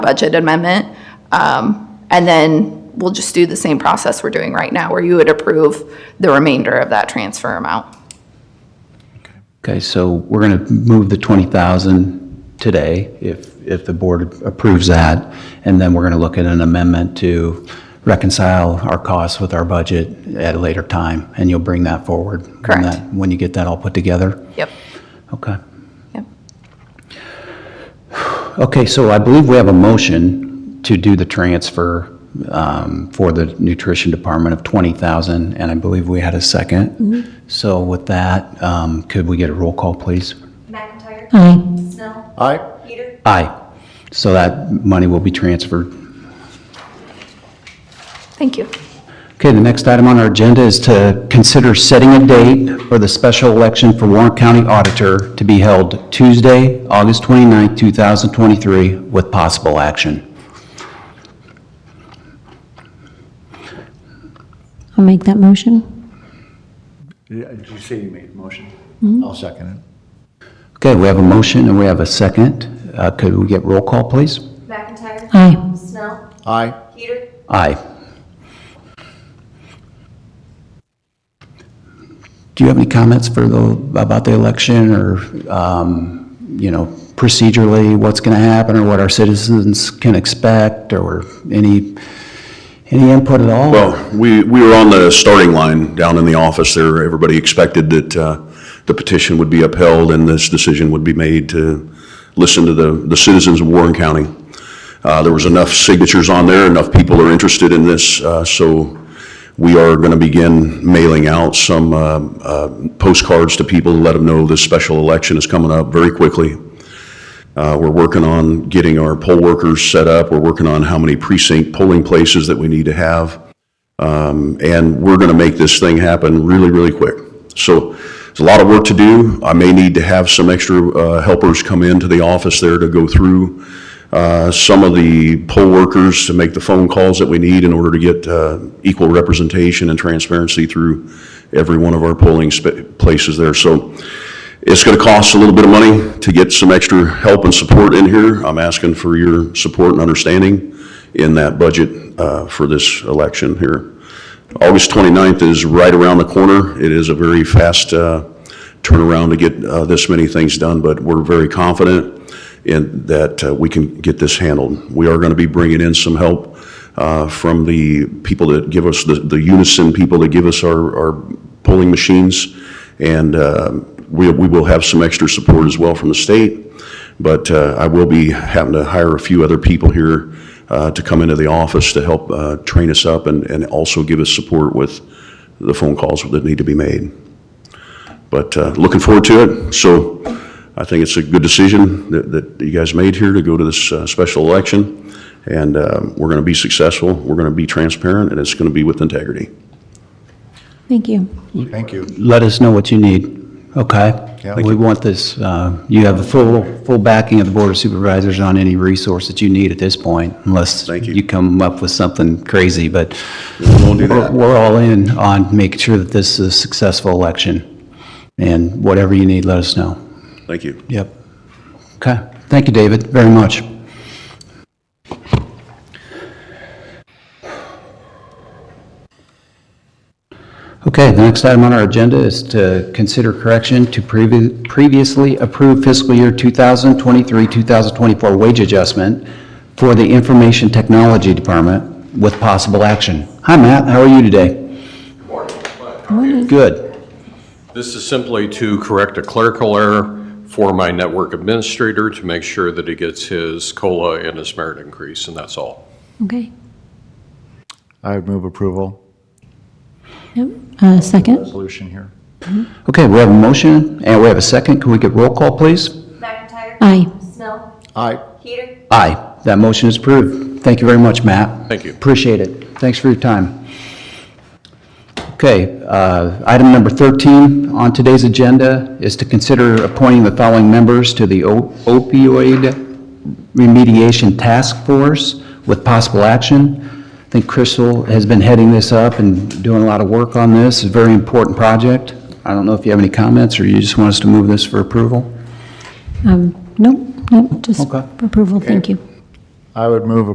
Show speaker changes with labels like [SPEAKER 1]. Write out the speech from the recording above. [SPEAKER 1] budget amendment. Um, And then we'll just do the same process we're doing right now, where you would approve the remainder of that transfer amount.
[SPEAKER 2] Okay, so we're going to move the 20,000 today, if, if the board approves that, and then we're going to look at an amendment to reconcile our costs with our budget at a later time, and you'll bring that forward. when
[SPEAKER 1] Correct.
[SPEAKER 2] that- When you get that all put together?
[SPEAKER 1] Yep,
[SPEAKER 2] Okay.
[SPEAKER 1] yep.
[SPEAKER 2] Okay, so I believe we have a motion to do the transfer um, for the nutrition department of 20,000, and I believe we had a second. So with that, um, could we get a roll call, please?
[SPEAKER 3] McIntyre. Aye. Snell. Aye. Peter.
[SPEAKER 2] Aye. So that money will be transferred.
[SPEAKER 1] Thank you.
[SPEAKER 2] Okay, the next item on our agenda is to consider setting a date for the special election for Warren County Auditor to be held Tuesday, August 29, 2023, with possible action.
[SPEAKER 4] I'll make that motion.
[SPEAKER 5] Yeah, Did you say you made a motion? I'll second it.
[SPEAKER 2] Okay, we have a motion and we have a second. Uh, Could we get roll call, please?
[SPEAKER 3] McIntyre.
[SPEAKER 4] Aye.
[SPEAKER 3] Snell.
[SPEAKER 5] Aye.
[SPEAKER 3] Peter.
[SPEAKER 2] Aye. Do you have any comments for the, about the election or, um, you know, procedurally, what's going to happen or what our citizens can expect or any, any input at all?
[SPEAKER 6] Well, we, we were on the starting line down in the office there. Everybody expected that uh, the petition would be upheld and this decision would be made to listen to the, the citizens of Warren County. Uh, There was enough signatures on there, enough people are interested in this, uh, so we are going to begin mailing out some uh, uh, postcards to people to let them know this special election is coming up very quickly. Uh, We're working on getting our poll workers set up. We're working on how many precinct polling places that we need to have and we're going to make this thing happen really, really quick. So there's a lot of work to do. I may need to have some extra uh, helpers come into the office there to go through uh, some of the poll workers to make the phone calls that we need in order to get uh, equal representation and transparency through every one of our polling spa- places there. So it's going to cost a little bit of money to get some extra help and support in here. I'm asking for your support and understanding in that budget uh, for this election here. August 29th is right around the corner. It is a very fast uh, turnaround to get uh, this many things done, but we're very confident in that uh, we can get this handled. We are going to be bringing in some help uh, from the people that give us, the the Unison people that give us our our polling machines, and uh, we we will have some extra support as well from the state. But uh, I will be having to hire a few other people here uh, to come into the office to help uh, train us up and, and also give us support with the phone calls that need to be made. But uh, looking forward to it. So I think it's a good decision that, that you guys made here to go to this uh, special election. And uh, we're going to be successful, we're going to be transparent, and it's going to be with integrity.
[SPEAKER 4] Thank you.
[SPEAKER 5] Thank you.
[SPEAKER 2] Let us know what you need, okay?
[SPEAKER 5] Yeah.
[SPEAKER 2] We want this, uh, you have the full, full backing of the Board of Supervisors on any resource that you need at this point, unless
[SPEAKER 6] Thank you.
[SPEAKER 2] you come up with something crazy, but
[SPEAKER 5] We'll do
[SPEAKER 2] We're
[SPEAKER 5] that.
[SPEAKER 2] we're all in on making sure that this is a successful election, and whatever you need, let us know.
[SPEAKER 6] Thank you.
[SPEAKER 2] Yep. Okay, thank you, David, very much. Okay, the next item on our agenda is to consider correction to previ- previously approved fiscal year 2023-2024 wage adjustment for the Information Technology Department with possible action. Hi, Matt, how are you today? Good.
[SPEAKER 7] This is simply to correct a clerical error for my network administrator to make sure that he gets his COLA and his merit increase, and that's all.
[SPEAKER 4] Okay.
[SPEAKER 5] I would move approval,
[SPEAKER 4] Yep. Uh, second?
[SPEAKER 5] resolution here.
[SPEAKER 2] Okay, we have a motion, and we have a second. Can we get roll call, please?
[SPEAKER 3] McIntyre.
[SPEAKER 4] Aye.
[SPEAKER 3] Snell.
[SPEAKER 5] Aye.
[SPEAKER 3] Peter.
[SPEAKER 2] Aye. That motion is approved. Thank you very much, Matt.
[SPEAKER 7] Thank you.
[SPEAKER 2] Appreciate it. Thanks for your time. Okay, uh, item number 13 on today's agenda is to consider appointing the following members to the o- opioid remediation task force with possible action. I think Crystal has been heading this up and doing a lot of work on this. It's a very important project. I don't know if you have any comments, or you just want us to move this for approval?
[SPEAKER 4] Um, nope, nope, just
[SPEAKER 2] Okay.
[SPEAKER 4] approval, thank you.
[SPEAKER 5] I would move